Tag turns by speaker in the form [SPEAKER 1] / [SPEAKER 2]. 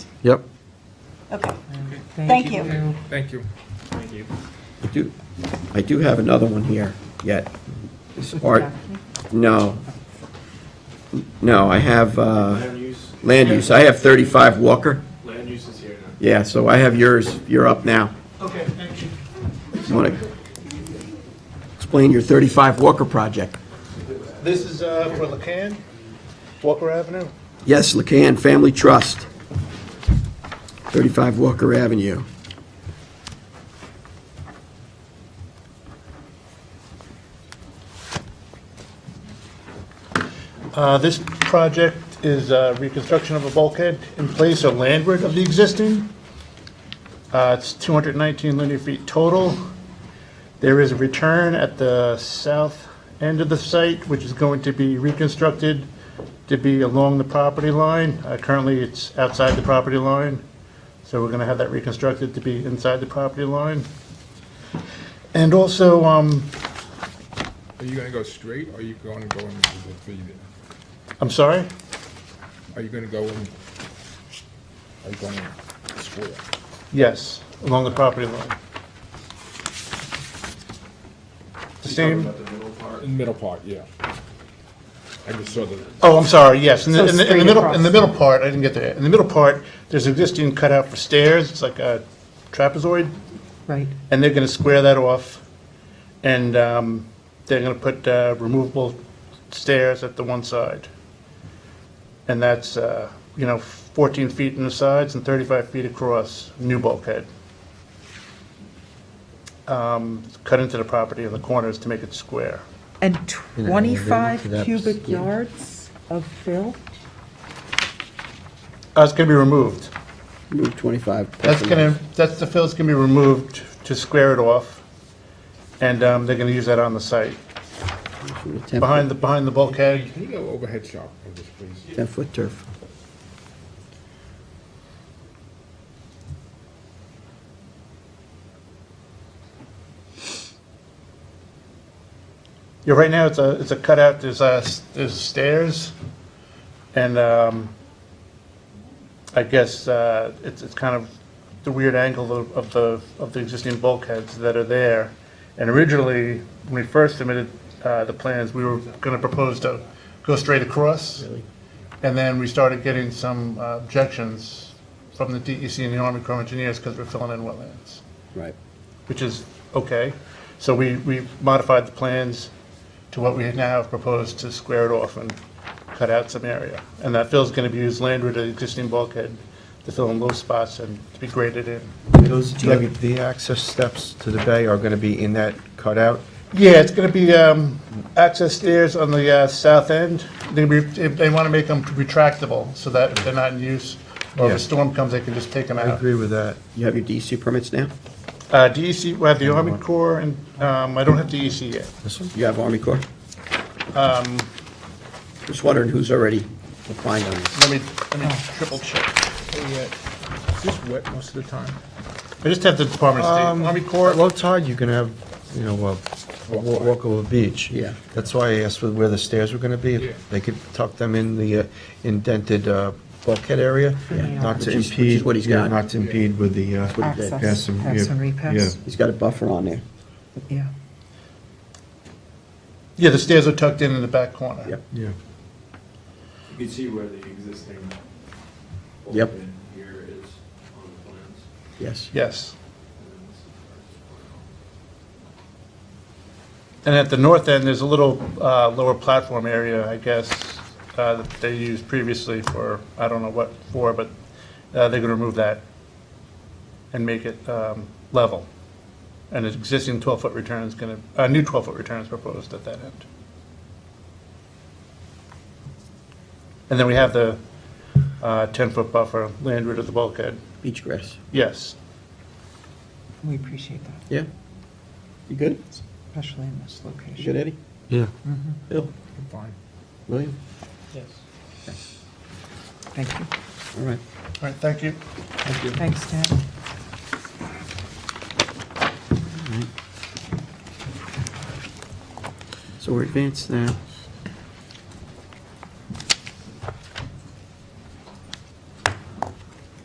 [SPEAKER 1] Yep.
[SPEAKER 2] Okay. Thank you.
[SPEAKER 3] Thank you.
[SPEAKER 4] Thank you.
[SPEAKER 1] I do, I do have another one here yet. It's Art, no. No, I have uh,
[SPEAKER 4] Land use,
[SPEAKER 1] land use. I have 35 Walker.
[SPEAKER 4] land use is here now.
[SPEAKER 1] Yeah, so I have yours. You're up now.
[SPEAKER 4] Okay, thank you.
[SPEAKER 1] You want to explain your 35 Walker project?
[SPEAKER 5] This is uh, for Lacan, Walker Avenue.
[SPEAKER 1] Yes, Lacan Family Trust, 35 Walker Avenue.
[SPEAKER 5] Uh, This project is uh, reconstruction of a bulkhead in place or landward of the existing. Uh, It's 219 linear feet total. There is a return at the south end of the site, which is going to be reconstructed to be along the property line. Uh, Currently, it's outside the property line, so we're going to have that reconstructed to be inside the property line. And also, um,
[SPEAKER 3] Are you gonna go straight, or are you gonna go in the three,
[SPEAKER 5] I'm sorry?
[SPEAKER 3] are you gonna go in? Are you going square?
[SPEAKER 5] Yes, along the property line. The Same,
[SPEAKER 3] In the middle part, yeah. I just saw the,
[SPEAKER 5] oh, I'm sorry, yes, in the,
[SPEAKER 6] So
[SPEAKER 5] in the in
[SPEAKER 6] straight
[SPEAKER 5] the middle,
[SPEAKER 6] across.
[SPEAKER 5] in the middle part, I didn't get there. In the middle part, there's existing cutout for stairs, it's like a trapezoid,
[SPEAKER 6] Right.
[SPEAKER 5] and they're gonna square that off. And, um, they're gonna put, uh, removable stairs at the one side. And that's, uh, you know, fourteen feet in the sides and thirty-five feet across, new bulkhead. Um, cut into the property in the corners to make it square.
[SPEAKER 6] And
[SPEAKER 1] You know, they looked it
[SPEAKER 6] 25
[SPEAKER 1] up,
[SPEAKER 6] cubic
[SPEAKER 1] yeah.
[SPEAKER 6] yards of fill?
[SPEAKER 5] Uh, it's gonna be removed.
[SPEAKER 1] Move 25.
[SPEAKER 5] That's gonna, that's, the fill's gonna be removed to square it off, and, um, they're gonna use that on the site. Behind the, behind the bulkhead,
[SPEAKER 3] can you go overhead shot on this, please?
[SPEAKER 1] 10-foot turf.
[SPEAKER 5] Yeah, right now, it's a, it's a cutout, there's, uh, s- there's stairs, and, um, I guess, uh, it's, it's kind of the weird angle of, of the, of the existing bulkheads that are there. And originally, when we first submitted, uh, the plans, we were gonna propose to go straight across. And then we started getting some uh, objections from the DEC and the Army Corps of Engineers, because we're filling in wetlands
[SPEAKER 1] Right.
[SPEAKER 5] which is okay. So we, we modified the plans to what we now have proposed to square it off and cut out some area. And that fill's gonna be used landward to the existing bulkhead to fill in low spots and to be graded in.
[SPEAKER 7] Those, the the access steps to the bay are going to be in that cutout?
[SPEAKER 5] Yeah, it's gonna be, um, access stairs on the, uh, south end. They, re- they- they wanna make them retractable so that if they're not in use, or if
[SPEAKER 7] Yeah.
[SPEAKER 5] a storm comes, they can just take them
[SPEAKER 7] I
[SPEAKER 5] out.
[SPEAKER 7] agree with that.
[SPEAKER 1] You have your DC permits now?
[SPEAKER 5] Uh, DEC, we have the Army Corps and, um, I don't have DEC yet.
[SPEAKER 1] You have Army Corps? Just wondering who's already applying on this.
[SPEAKER 5] Let me, let me
[SPEAKER 7] Oh.
[SPEAKER 5] triple check.
[SPEAKER 3] Yeah. Is this wet most of the time?
[SPEAKER 5] I just have the Department of
[SPEAKER 7] Um,
[SPEAKER 5] State, Army Corps.
[SPEAKER 7] At low tide, you can have, you know, a wa- walkable beach.
[SPEAKER 1] Yeah.
[SPEAKER 7] That's why I asked where the stairs were going to be.
[SPEAKER 3] Yeah.
[SPEAKER 7] If They could tuck them in the uh, indented uh, bulkhead area, not
[SPEAKER 1] Which
[SPEAKER 7] to
[SPEAKER 1] is- which is
[SPEAKER 7] impede,
[SPEAKER 1] what he's
[SPEAKER 7] yeah,
[SPEAKER 1] got.
[SPEAKER 7] not to impede with the. uh,
[SPEAKER 1] What he did.
[SPEAKER 6] Access.
[SPEAKER 7] pass and-
[SPEAKER 6] Pass
[SPEAKER 7] yeah,
[SPEAKER 6] and repass.
[SPEAKER 7] yeah.
[SPEAKER 1] He's got a buffer on there.
[SPEAKER 6] Yeah.
[SPEAKER 5] Yeah, the stairs are tucked in in the back corner.
[SPEAKER 1] Yep.
[SPEAKER 7] Yeah.
[SPEAKER 4] You can see where the existing
[SPEAKER 1] Yep.
[SPEAKER 4] bulkhead here is on the plans.
[SPEAKER 1] Yes.
[SPEAKER 5] Yes.
[SPEAKER 4] And then this is where it's-
[SPEAKER 5] And at the north end, there's a little uh, lower platform area, I guess, uh, that they used previously for, I don't know what for, but uh, they're going to remove that and make it um, level. And an existing 12-foot return is going to, a new 12-foot return is proposed at that end. And then we have the uh, 10-foot buffer landward of the bulkhead.
[SPEAKER 1] Beach grass.
[SPEAKER 5] Yes.
[SPEAKER 6] We appreciate that,
[SPEAKER 1] Yeah? You good?
[SPEAKER 6] especially in this
[SPEAKER 1] You
[SPEAKER 6] location.
[SPEAKER 1] good, Eddie?
[SPEAKER 7] Yeah.
[SPEAKER 1] Bill?
[SPEAKER 3] I'm fine.
[SPEAKER 1] William?
[SPEAKER 6] Thank you.
[SPEAKER 1] All right.
[SPEAKER 5] All right, thank you.
[SPEAKER 6] Thanks, Ted.
[SPEAKER 1] So we're advanced now.